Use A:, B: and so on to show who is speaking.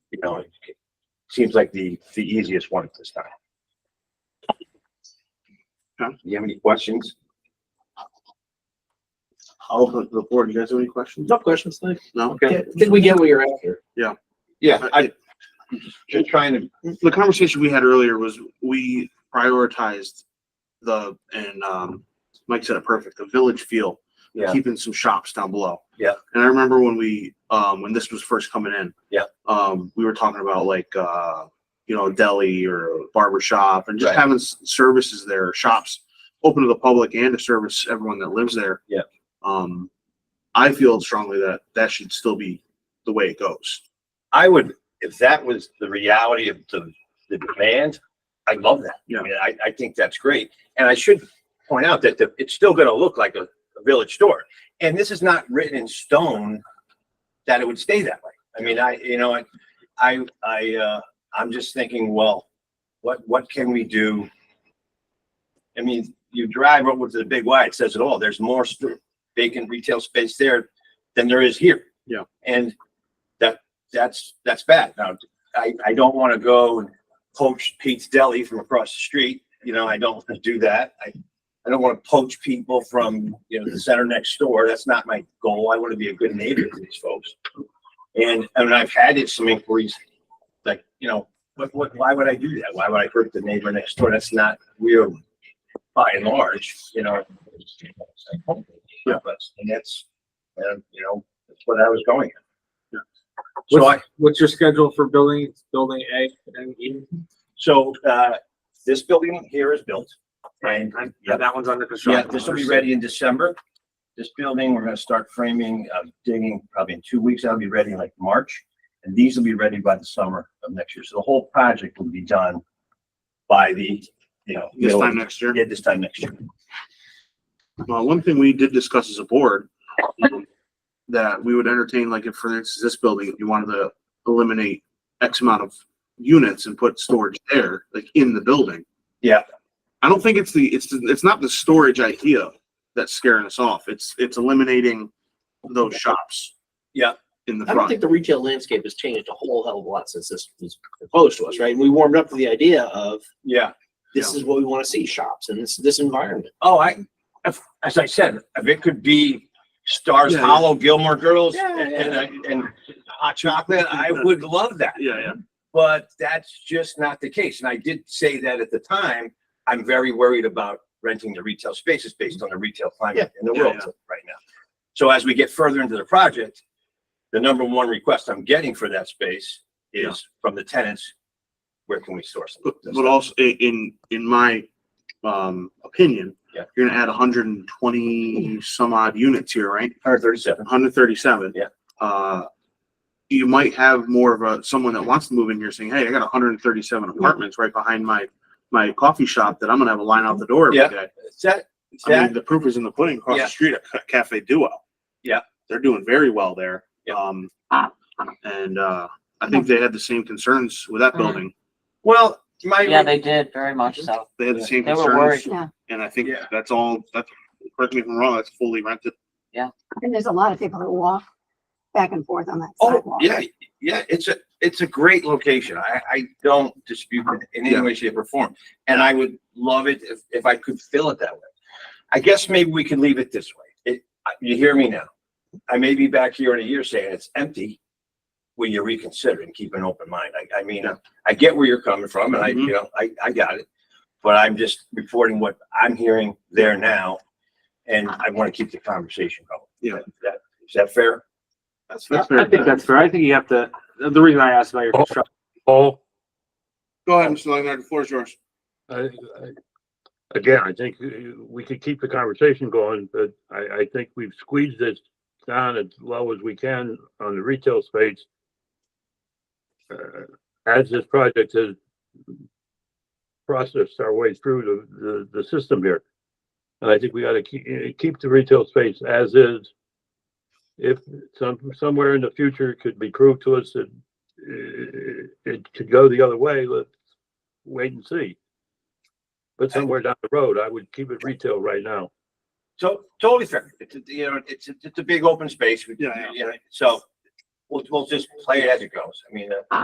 A: know, it seems like the, the easiest one at this time.
B: John, do you have any questions? I'll open the board. You guys have any questions?
C: No questions, thanks.
B: No?
C: I think we get what you're after.
D: Yeah, I, just trying to,
B: The conversation we had earlier was we prioritized the, and, um, Mike said it perfect, the village feel.
A: Yeah.
B: Keeping some shops down below.
A: Yeah.
B: And I remember when we, um, when this was first coming in.
A: Yeah.
B: Um, we were talking about like, uh, you know, a deli or a barber shop and just
D: Right.
B: having s- services there, shops open to the public and to service everyone that lives there.
A: Yeah.
B: Um, I feel strongly that that should still be the way it goes.
A: I would, if that was the reality of the, the demand, I love that.
B: Yeah.
A: I mean, I, I think that's great. And I should point out that the, it's still gonna look like a, a village store. And this is not written in stone that it would stay that way. I mean, I, you know, I, I, I, uh, I'm just thinking, well, what, what can we do? I mean, you drive over to the big Y, it says it all. There's more st- vacant retail space there than there is here.
B: Yeah.
A: And that, that's, that's bad. Now, I, I don't want to go and poach Pete's Deli from across the street. You know, I don't want to do that. I, I don't want to poach people from, you know, the center next door. That's not my goal. I want to be a good neighbor to these folks. And, and I've had it- some inquiries, like, you know, what, what, why would I do that? Why would I hurt the neighbor next door? That's not real by and large, you know. Yeah, but, and that's, and, you know, that's what I was going at. So I,
C: What's your schedule for building, building A and E?
A: so, uh, this building here is built. And
C: And yeah, that one's under
A: yeah,
C: construction.
A: this will be ready in December. This building, we're gonna start framing, uh, digging probably in two weeks. That'll be ready in like March. And these will be ready by the summer of next year. So the whole project will be done by the, you know.
B: This
A: middle of-
B: time next year.
A: Yeah, this time next year.
B: Well, one thing we did discuss as a board, um, that we would entertain, like if for instance, this building, if you wanted to eliminate X amount of units and put storage there, like in the building.
A: Yeah.
B: I don't think it's the, it's, it's not the storage idea that's scaring us off. It's, it's eliminating those shops.
A: Yeah.
B: In the
C: I don't
B: front.
C: think the retail landscape has changed a whole hell of a lot since this was proposed to us, right? And we warmed up to the idea of
A: Yeah.
C: this is what we want to see, shops and this, this environment.
A: Oh, I, if, as I said, if it could be Stars
B: Yeah, yeah.
A: Hollow, Gilmore Girls,
C: Yeah,
A: and,
C: yeah,
A: and, and hot chocolate, I would love that.
B: Yeah, yeah.
A: But that's just not the case. And I did say that at the time, I'm very worried about renting the retail spaces based on the retail climate in the
B: yeah,
A: world right now. So as we get further into the project, the number one request I'm getting for that space
B: Yeah.
A: is from the tenants, where can we source them?
B: But, but also i- in, in my, um, opinion.
A: Yeah.
B: You're gonna add hundred and twenty some odd units here, right?
A: Hundred thirty-seven.
B: hundred thirty-seven.
A: Yeah.
B: Uh, you might have more of a, someone that wants to move in here saying, hey, I got hundred and thirty-seven apartments right behind my, my coffee shop that I'm gonna have a line out the door
A: Yeah.
B: every day.
A: That,
B: I
A: that
B: mean, the proof is in the pudding across
A: Yeah.
B: the street at Ca- Cafe Duo.
A: Yeah.
B: They're doing very well there.
A: Yeah.
B: Um, and, uh, I think they had the same concerns with that
E: Mhm.
B: building.
A: Well, my.
E: Yeah, they did, very much so.
B: They had the same
E: They were worried.
B: concerns. And I think
A: Yeah.
B: that's all, that's, correct me if I'm wrong, that's fully rented.
F: And there's a lot of people that walk back and forth on that
A: oh,
F: sidewalk.
A: yeah, yeah, it's a, it's a great location. I, I don't dispute it in any
B: Yeah.
A: way, shape or form. And I would love it if, if I could fill it that way. I guess maybe we could leave it this way. It, I- you hear me now? I may be back here in a year saying it's empty. Will you reconsider and keep an open mind? I, I mean, I get where you're coming from and I,
B: Mm-hmm.
A: you know, I, I got it. But I'm just reporting what I'm hearing there now. And I want to keep the conversation going.
B: Yeah.
A: Is that, is that fair?
B: That's,
C: I
B: that's fair.
C: I think that's fair. I think you have to, the reason I asked about your construction.
G: Paul,
B: Go ahead, Mr. Leonard, the floor is yours.
G: I, I, again, I think uh, we could keep the conversation going, but I, I think we've squeezed this down as low as we can on the retail space. Uh, As this project has processed our way through the, the, the system here. And I think we ought to keep, uh, keep the retail space as is. If some, somewhere in the future it could be proved to us that uh, it could go the other way, let's wait and see. But somewhere down the road, I would keep it retail right now.
A: So totally fair. It's, a- you know, it's, a- it's a big open space. We-
B: Yeah, yeah.
A: you know, So we'll, we'll just play it as it goes. I mean, uh,